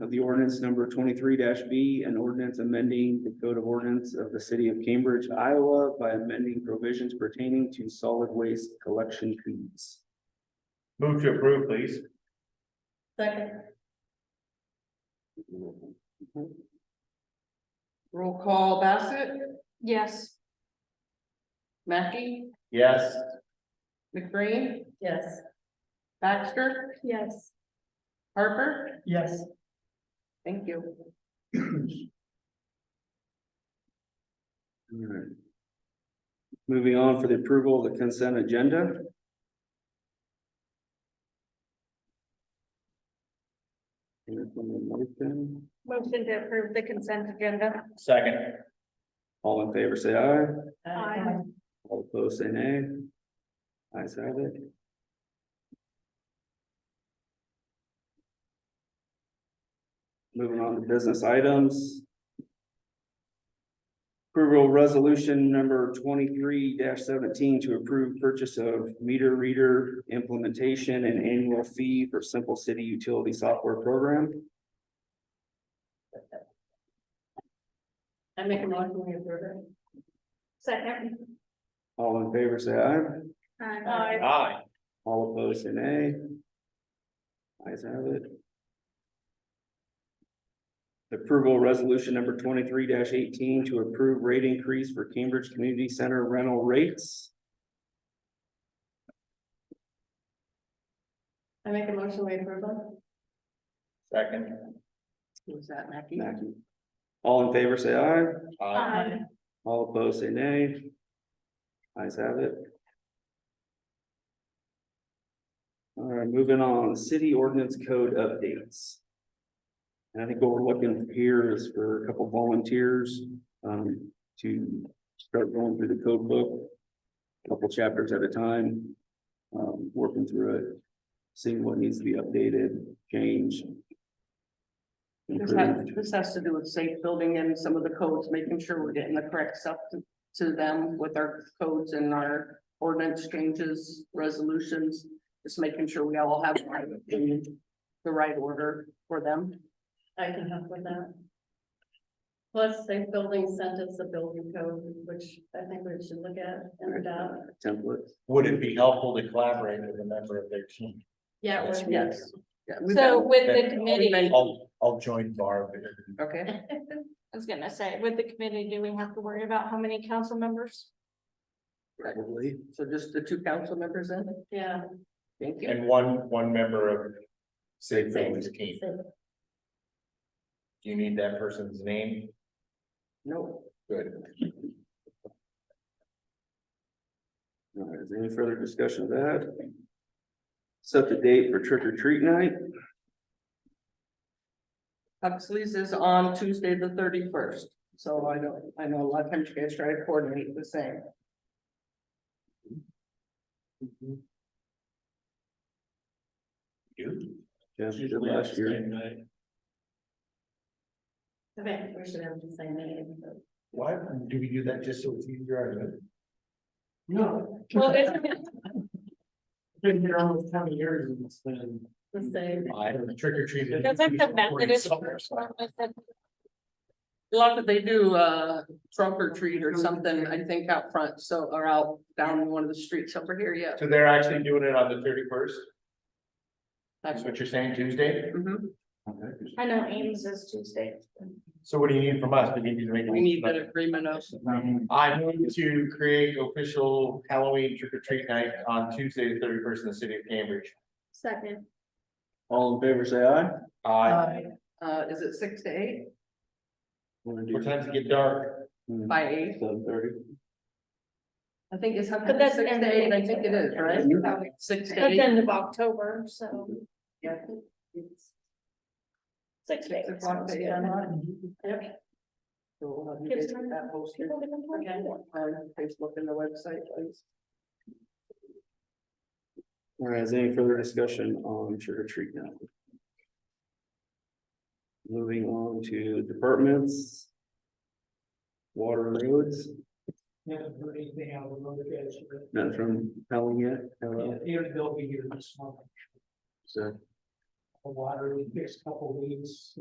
of the ordinance number twenty-three B, an ordinance amending the code of ordinance of the city of Cambridge, Iowa by amending provisions pertaining to solid waste collection fees. Move to approve, please. Second. Roll call Bassett, Yes. Mackey, Yes. McBreen, Yes. Baxter, Yes. Harper. Yes. Thank you. Alright. Moving on for the approval of the consent agenda. Anything like that? Motion to approve the consent agenda. Second. All in favor, say aye. Aye. All opposed, say nay. Ayes have it. Moving on to business items. Approval resolution number twenty-three seventeen to approve purchase of meter reader implementation and annual fee for Simple City Utility Software Program. I make a motion we approve it. Second. All in favor, say aye. Aye. Aye. All opposed, say nay. Ayes have it. Approval resolution number twenty-three eighteen to approve rate increase for Cambridge Community Center rental rates. I make a motion we approve it. Second. Who's that, Mackey? Mackey. All in favor, say aye. Aye. All opposed, say nay. Ayes have it. All right, moving on, city ordinance code updates. And I think what we're looking for here is for a couple volunteers, um, to start going through the code book. a Couple chapters at a time, um, working through it, seeing what needs to be updated, changed. This has, improved. this has to do with safe building and some of the codes, making sure we're getting the correct stuff to, to them with our codes and our ordinance changes, resolutions. Just making sure we all have the right- the right order for them. I can help with that. Plus, they building sent us a building code, which I think we should look at and adopt. Templates. Would it be helpful to collaborate with a member of their team? Yeah, it would be. Yes. Yeah, we've So been- with the committee, I I'll, I'll join Barb. Okay, was gonna say, with the committee, do we have to worry about how many council members? Probably. so just the two council members in, Yeah. thank you. And one, one member of Safe Buildings team. Same. Do you need that person's name? No, Good. All right, is there any further discussion of that? Set the date for trick or treat night, Huxley's is on Tuesday, the thirty-first, so I know, I know a lot of times you guys try to coordinate the same. You? Jeff, you did last year, I think we should have the same name. but- Why, do we do that just so it's easier? No. Well, it's, Been here almost twenty years and it's been. The Mm-hmm. same. I don't know, trick or treat. doesn't the Methodist church one with the A lot of, they do uh trunk or treat or something, I think out front, so, or out down one of the streets over here, yeah. So they're actually doing it on the thirty first? That's That's what you're saying, Tuesday? Mhm. I know Ames is Tuesday. So what do you need from us? Do you need to make? a We need that motion? agreement of, I move to create official Halloween trick or treat night on Tuesday, the thirty first in the city of Cambridge. Second. all in favor, say aye. Uh, uh, is it six to eight what times it get dark? by eight? Hmm, Seven thirty. I think it's. But that's Six end to of eight, I April. think it is, right? Six to It's eight. end of October, so Yeah. six days. Six o'clock to eight. Yep. Mm-hmm. So we'll have you Gives guys get time that posted People to come on forward. Facebook and the website, please. All right, is there any further discussion on trick or treat now? Moving on to departments. Water and roads, Yeah, heard anything out of another guy. none from Helen yet, hello, Here they'll be here this month, so. the water, we fixed a couple leaks,